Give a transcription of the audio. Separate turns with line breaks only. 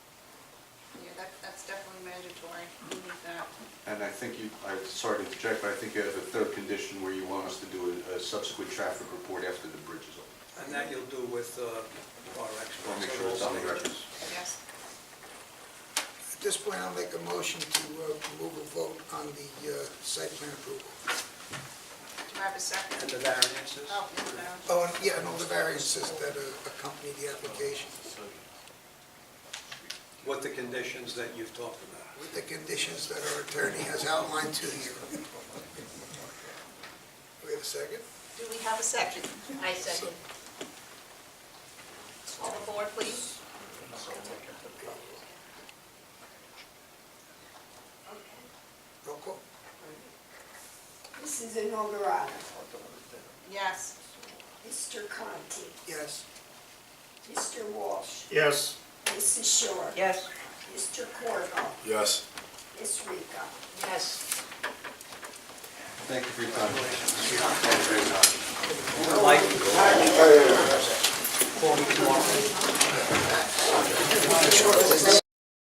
statutory, we need that.
And I think you, I'm sorry to interject, but I think you have a third condition where you want us to do a- a subsequent traffic report after the bridge is open.
And that you'll do with uh, our experts.
We'll make sure it's on the records.
Yes.
At this point, I'll make a motion to uh, move a vote on the uh, site plan approval.
Do I have a
And
second?
the variances.
Oh, no.
Oh, and, yeah, and all the variances that uh, accompany the application
With the conditions that you've talked about.
with the conditions that our attorney has outlined to you. We have a second?
Do we have a second? I second. All aboard, please.
Roll call?
Mrs. Inogarata.
Yes.
Mr. Conti.
Yes.
Mr. Walsh.
Yes.
Mrs. Shore.
Yes.
Mr. Corvo.
Yes.
Ms. Rico.
Yes.
Thank you for your time.
Like,
Sure.